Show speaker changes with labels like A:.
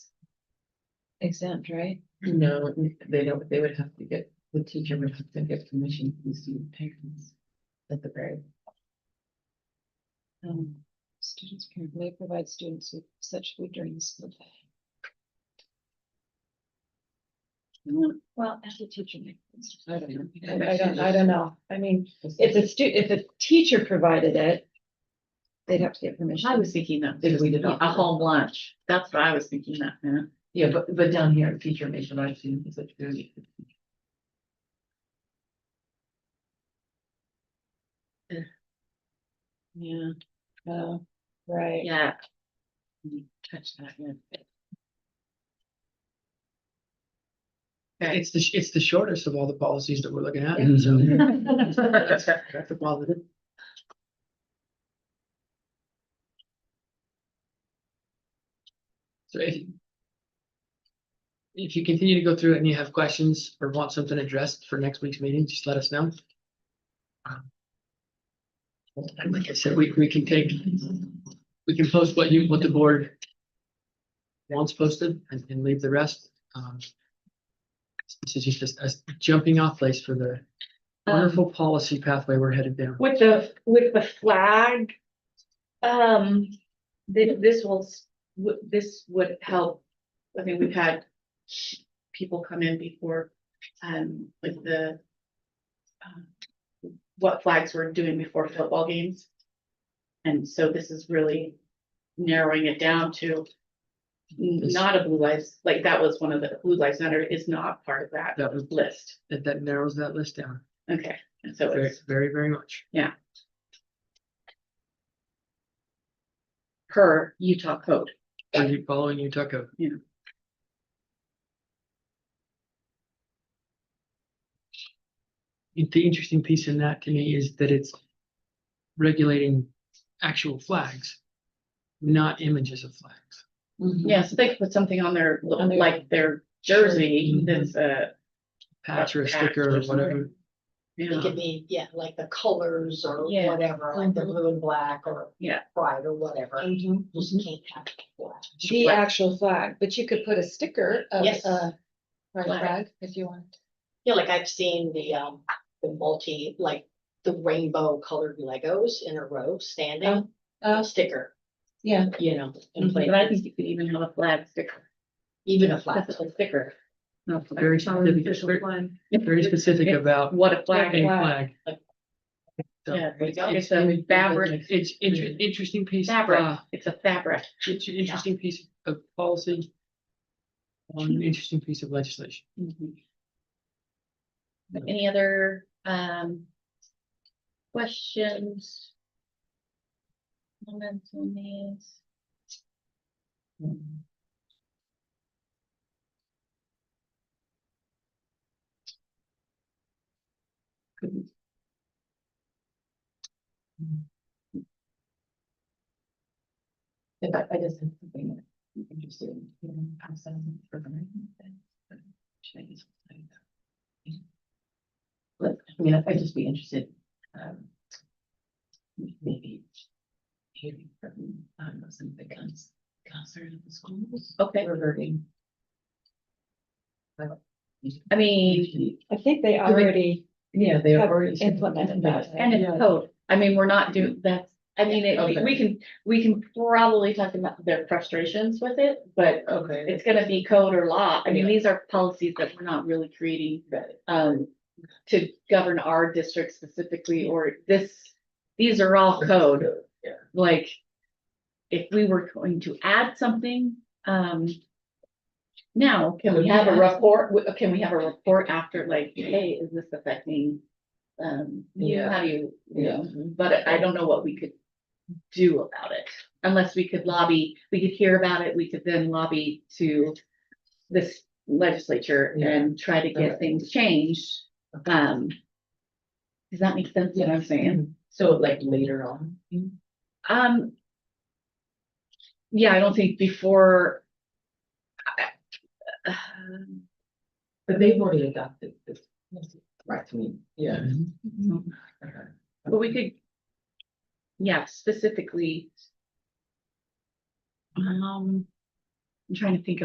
A: exempt, right?
B: No, they don't, they would have to get, the teacher would have to get permission from the student parents. At the very.
A: Um, students can may provide students with such food during the school day. Mm, Well, as a teacher. maybe it's- I don't know. I I don't, I don't know. I mean, if a stu, if a teacher provided it, they'd have to get permission.
C: I was thinking that,
B: Did
C: just
B: we deduct
C: a
B: it?
C: home lunch, that's what I was thinking that, man.
B: Yeah, but, but down here, teacher may provide student with such food.
C: Yeah,
A: Oh, Right.
C: yeah. You Touch that, yeah.
D: It's the, sh- it's the shortest of all the policies that we're looking at,
B: Yeah.
D: so.
A: Mm-hmm.
D: That's that's a positive. So if. If you continue to go through it and you have questions or want something addressed for next week's meeting, just let us know. Um, And like I said, we, we can take, we can post what you, what the board. Wants posted and, and leave the rest, um. This is just a a jumping off place for the wonderful policy pathway we're headed down.
E: With the, with the flag, um,
C: This, this will, s- would- this would help, I mean, we've had people come in before, um, with the um, what flags we're doing before football games. And so this is really narrowing it down to n-
D: This-
C: not a blue lives, like that was one of the, blue lives matter is not part of that
D: That was,
C: list,
D: that, that narrows that list down
C: okay, and so
D: very,
C: it's
D: very, very much.
C: per Utah code.
D: Are you following Utah code?
C: Yeah.
D: I think The interesting piece in that to me is that it's regulating actual flags, not images of flags.
C: Yeah, so they could put something on their,
A: On their-
C: like their jersey,
D: Mhm.
C: that's a,
D: Patch or a
C: patch
D: sticker
C: or
D: or whatever.
C: you
F: It
C: know,
F: could be, yeah, like the colors or
C: Yeah. Mm-hmm.
F: whatever, like the blue and black or.
C: Yeah. Mm-hmm.
F: Pride or whatever, you
A: Mhm.
F: just can't have it black.
A: The actual flag, but you could put a sticker of
F: Yes.
A: a pride
C: Flag.
A: flag if you want.
F: Yeah, like I've seen the um, the multi, like the rainbow colored Legos in a row standing,
A: Oh,
F: sticker,
A: yeah.
F: you know, in
C: Mm-hmm. but I think
F: place,
C: you could even have a flag sticker.
F: even a flat.
C: That's a sticker. No, flag.
D: Very specific, very- very specific about
C: What a
D: a
C: flag is.
D: flag. So
C: Yeah,
F: There you go.
C: It's a fabric,
D: It's, it's an interesting piece. uh,
C: fabric, it's a fabric.
D: It's an interesting piece of policy. On an interesting piece of legislation.
C: Any other, um, questions? Comments on these?
B: If I, I just have something that I'm interested in, you know, outside of the program, then, but should I just say that? But, I mean, I'd just be interested, um, maybe hearing from, um, some of the couns, counselors of the schools.
C: Okay,
B: Reverting.
C: I mean,
A: I think they already
B: Yeah, they
A: have
B: already.
A: implemented that.
C: and
B: Yeah.
C: it's code, I mean, we're not doing, that's, I mean, it- we- we can, we can probably talk about their frustrations with it, but
B: Okay.
C: it's gonna be code or law, I mean, these are policies that we're not really creating. Um, to govern our district specifically, or this, these are all code, like. If we were going to add something, um. Now, can we have a report, w- can we have a report after, like, hey, is this affecting? Um, you know,
B: Yeah.
C: how do you, you know, but I don't know what we could do about it. Unless we could lobby, we could hear about it, we could then lobby to this legislature and try to get
B: Alright.
C: things changed. Um. Does that make sense what I'm saying?
B: Mm-hmm. So like later on.
C: Um. Yeah, I don't think before. I- um,
B: But they've already adopted this. Right, to me, yeah.
C: But we could. Yeah, specifically. Um. I'm trying to think